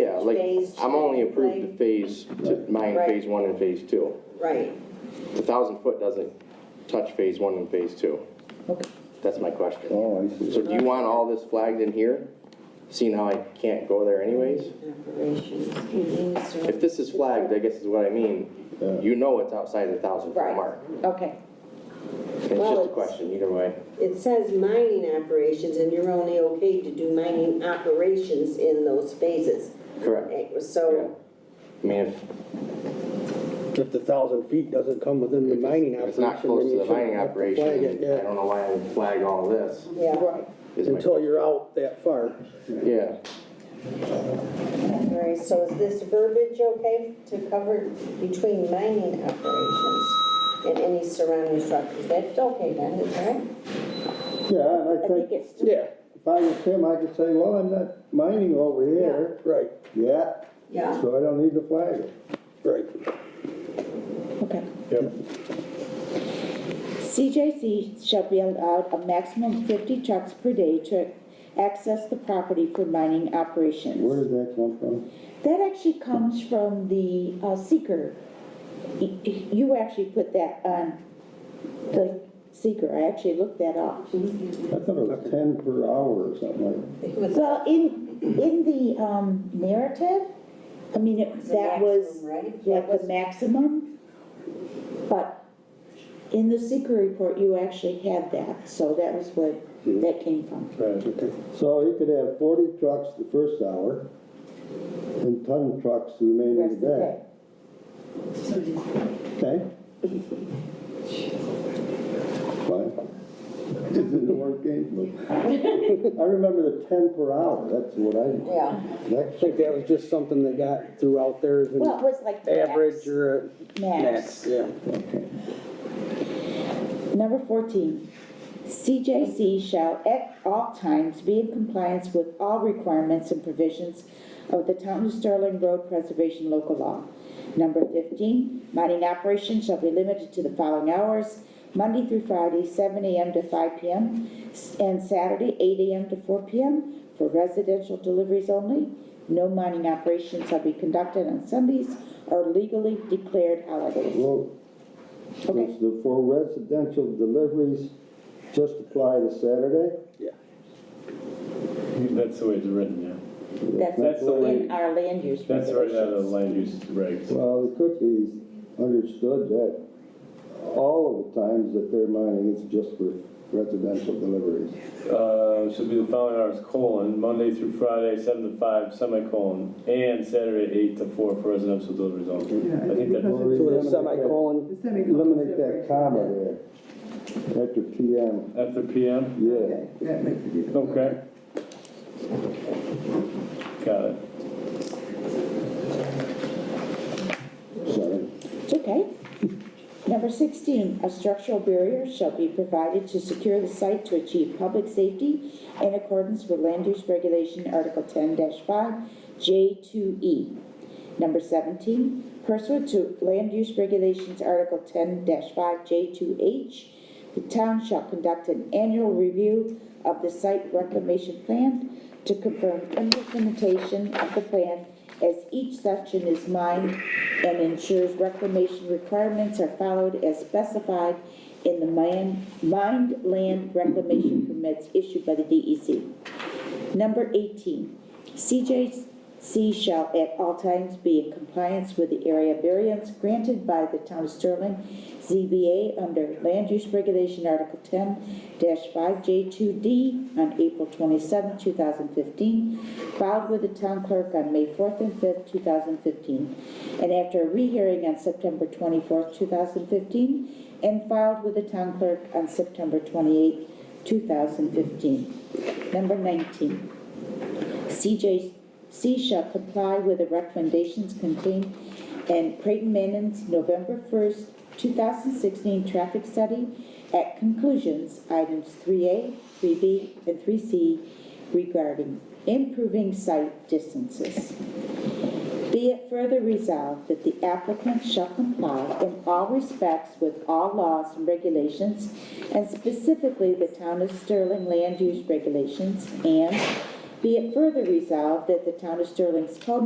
like, phase I'm only should approved play? to phase, to mine, Right. phase one and phase two. Right, The thousand foot doesn't touch phase one and phase two. Okay. That's my question. Oh, I So see. do you want all this flagged in here, seeing how I can't go there anyways? operations, heating, service. If this is flagged, I guess is what I mean, Yeah. you know it's outside the thousand foot Right. mark. Okay, It's Well, just a it's- question, either way. It says mining operations, and you're only okay to do mining operations in those phases. Correct. Eh, Yeah. So, I mean, if, If the thousand feet doesn't come within the mining if operation. it's not then close to you the mining shouldn't have to operation, flag it, yeah. I don't know why I would flag all this. yeah, right. is my- Until you're out that far. Yeah, all right, so is this verbiage okay to cover between mining operations and any surrounding structures? That's okay then, is that right? Yeah, and I I think think, it's, Yeah, if I was him, I could say, well, I'm not mining over here right, yet, yeah, so I don't need to flag it. right. Okay. Yep. CJC shall be allowed a maximum of 50 trucks per day to access the property for mining Where operations. does that come from? That actually comes from the uh, seeker. Y- y- You actually put that on the seeker, I actually looked that up. I thought it was ten per hour or something like that. it was Well, in, in the um, narrative, I mean, it- the that was. maximum, right? like the maximum, but in the secret report, you actually had that, so that was where that came from. Okay. So he could have forty trucks the first hour and ton trucks the remaining Rest of of the day. that. Okay? Fine. Isn't the word game? I remember the ten per hour, that's what I, Yeah. I that's think that was just something that got throughout there as an Well, it was like the average or a max, Max. yeah. Number fourteen, CJC shall at all times be in compliance with all requirements and provisions of the Town of Sterling Road Preservation Local Law. Number fifteen, mining operations shall be limited to the following hours, Monday through Friday, seven AM to five PM, s- and Saturday, eight AM to four PM, for residential deliveries only. No mining operations shall be conducted on Sundays or legally declared holidays. Well, Okay. does the, for residential deliveries, just apply to Saturday? That's the way it's written, That's That's the way- in our land use yeah. That's right out of regulations. the land use regs. Well, it could be understood that all of the times that they're mining, it's just for residential deliveries. Uh, Should be the following hours, colon, Monday through Friday, seven to five, semicolon, and Saturday, eight to four for residential deliveries only. Yeah, I think that, because- Or So eliminate the that- semicolon, The semicolon Eliminate that separation, comma there, after PM, after PM? yeah. Okay, that makes it easier. Okay. Got it. Sorry. It's okay. Number 16, a structural barrier shall be provided to secure the site to achieve public safety in accordance with Land Use Regulation Article 10-5, J2E. E. Number 17, pursuant to Land Use Regulations Article 10-5, J2H, the town shall conduct an annual review of the site reclamation plan to confirm implementation of the plan as each section is mined and ensures reclamation requirements are followed as specified in the mine- mined land reclamation permits issued by the E DEC. Number 18, CJC shall at all times be in compliance with the area variance granted by the Town of Sterling ZBA under Land Use Regulation Article 10-5J2D on April 27, 2015, filed with the town clerk on May 4th and 5th, 2015, and after a rehearing on September 24th, 2015, and filed with the town clerk on September 28th, 2015. Number 19, CJC shall comply with the recommendations contained in Creighton Manning's November 1st, 2016 traffic study at conclusions, items 3A, 3B, and 3C regarding improving site distances. Be it further resolved that the applicant shall comply in all respects with all laws and regulations, and specifically the Town of Sterling Land Use Regulations, and be it further resolved that the Town of Sterling's code